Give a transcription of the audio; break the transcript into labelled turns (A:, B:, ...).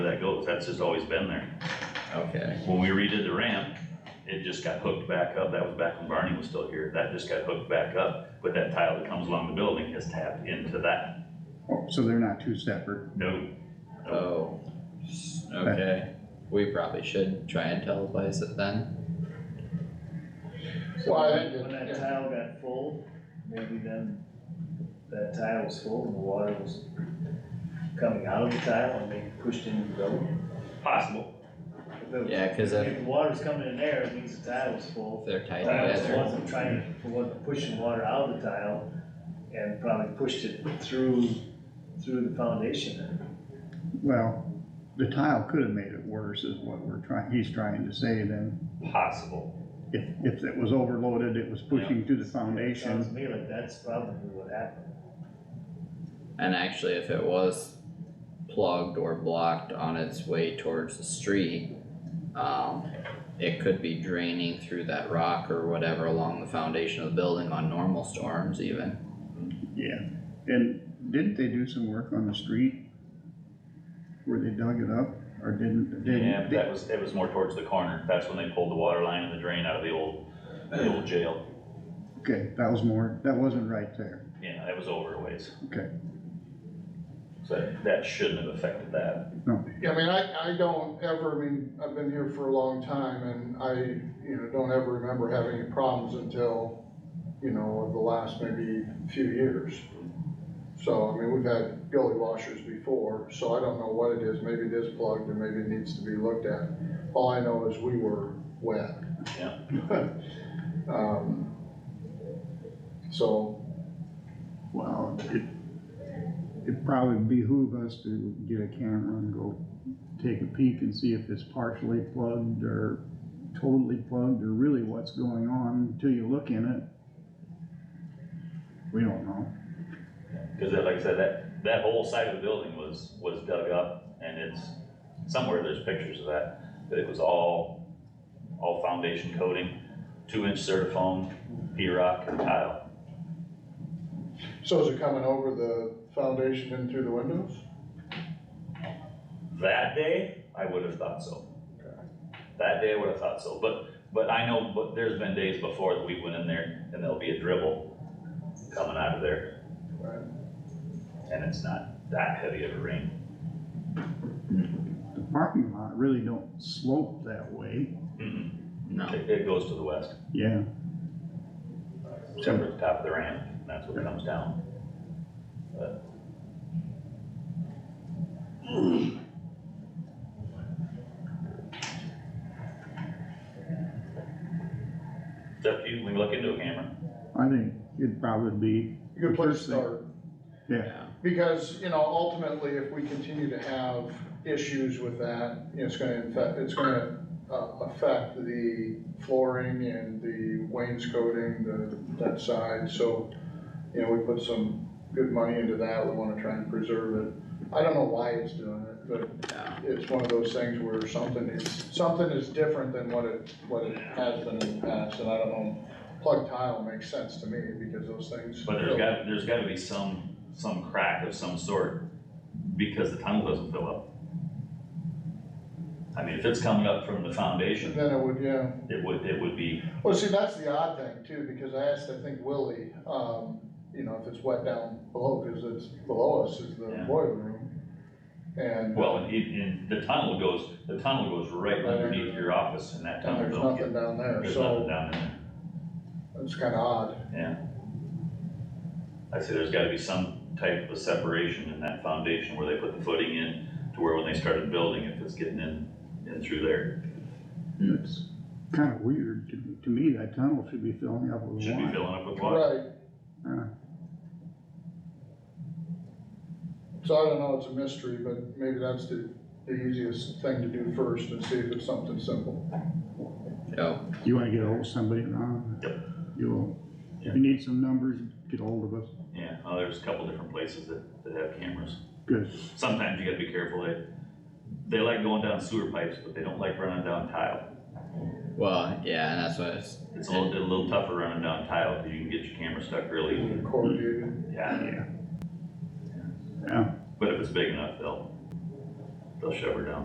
A: built, that's just always been there.
B: Okay,
A: When we redid the ramp, it just got hooked back up, that was back when Barney was still here, that just got hooked back up. But that tile that comes along the building is tapped into that,
C: Oh, So they're not two separate.
A: no,
B: oh, okay, we probably should try and televise it then.
D: Well, I think,
E: When that
D: it-
E: tile got full, maybe then that tile was full and the water was coming out of the tile and being pushed into the building.
A: possible,
E: If it was-
B: Yeah, 'cause if-
E: If the water's coming in there, it means the tile was
B: If
E: full.
B: they're tied
E: The Tile
B: together,
E: wasn't trying, it wasn't pushing water out of the tile and probably pushed it through, through the foundation.
C: Well, the tile could have made it worse is what we're trying, he's trying to say then.
A: possible.
C: If, if it was overloaded, it was pushing to the
E: Sounds to
C: foundation.
E: me like that's probably what happened.
B: and actually if it was plugged or blocked on its way towards the street, um, it could be draining through that rock or whatever along the foundation of the building on normal storms even.
C: Yeah, and didn't they do some work on the street? Where they dug it up or didn't, didn't?
A: Yeah, but that was, it was more towards the corner, that's when they pulled the water line and the drain out of the old, the old jail.
C: Okay, that was more, that wasn't right there.
A: Yeah, that was over a ways.
C: Okay.
A: So that- that shouldn't have affected that.
D: I mean, I, I don't ever, I mean, I've been here for a long time and I, you know, don't ever remember having any problems until, you know, the last maybe few years. So, I mean, we've had gully washers before, so I don't know what it is. Maybe it is plugged and maybe it needs to be looked at. All I know is we were wet.
A: Yeah.
D: Um, So,
C: Well, it, it probably behoove us to get a camera and go take a peek and see if it's partially plugged or totally plugged or really what's going on until you look in it. We don't know.
A: Cause that- like I said, that, that whole side of the building was, was dug up and it's, somewhere there's pictures of that, that it was all, all foundation coating, two inch certifoam, P-rock and tile.
D: So is it coming over the foundation in through the windows?
A: That day, I would have thought so. That day, I would have thought so, but, but I know, but there's been days before that we went in there and there'll be a dribble coming out of there
D: Right.
A: and it's not that heavy of a rain.
C: The parking lot really don't slope that way.
A: Mm-mm.
B: No,
A: It, it goes to the west,
C: Yeah,
A: except for the top of the ramp, and that's what comes down. It's up to you, we can look into a camera.
C: I think it'd probably be,
D: Good place to
C: First thing.
D: start,
B: yeah,
D: because, you know, ultimately, if we continue to have issues with that, you know, it's gonna affect, it's gonna uh, affect the flooring and the wainscoting, the, that side, so, you know, we put some good money into that, we wanna try and preserve it. I don't know why it's doing it, but
B: yeah,
D: it's one of those things where something is, something is different than what it, what it has been in the past, and I don't know. Plug tile makes sense to me, because those things.
A: But there's got, there's gotta be some, some crack of some sort, because the tunnel doesn't fill up. I mean, if it's coming up from the foundation,
D: Then it would, yeah,
A: it would, it would be,
D: well, see, that's the odd thing too, because I asked, I think Willie, um, you know, if it's wet down below, cause it's below us is the
A: Yeah.
D: boiler room. And,
A: well, and, it- and the tunnel goes, the tunnel goes right
D: Right.
A: underneath your office, and that
D: and
A: tunnel
D: there's
A: don't
D: nothing
A: get,
D: down there,
A: there's nothing
D: so
A: down in there.
D: it's kinda odd,
A: I say there's gotta be some type of a separation in that foundation where they put the footing in to where when they started building, if it's getting in, in through there,
C: it's kind of weird. To, to me, that tunnel should be filling up with
A: should be
C: water.
A: filling up with water.
D: right?
C: Uh,
D: So I don't know, it's a mystery, but maybe that's the, the easiest thing to do first and see if it's something simple.
B: oh,
C: You wanna get ahold of somebody, Ron?
A: Yep.
C: You will. If you need some numbers, get ahold of us.
A: Yeah, oh, there's a couple different places that, that have cameras.
C: Good.
A: Sometimes you gotta be careful, they, they like going down sewer pipes, but they don't like running down tile.
B: well, yeah, and that's what it's,
A: It's a little, a little tougher running down tile, cause you can get your camera stuck really,
D: corrugated.
A: yeah,
C: Yeah.
A: but if it's big enough, they'll, they'll shove her down.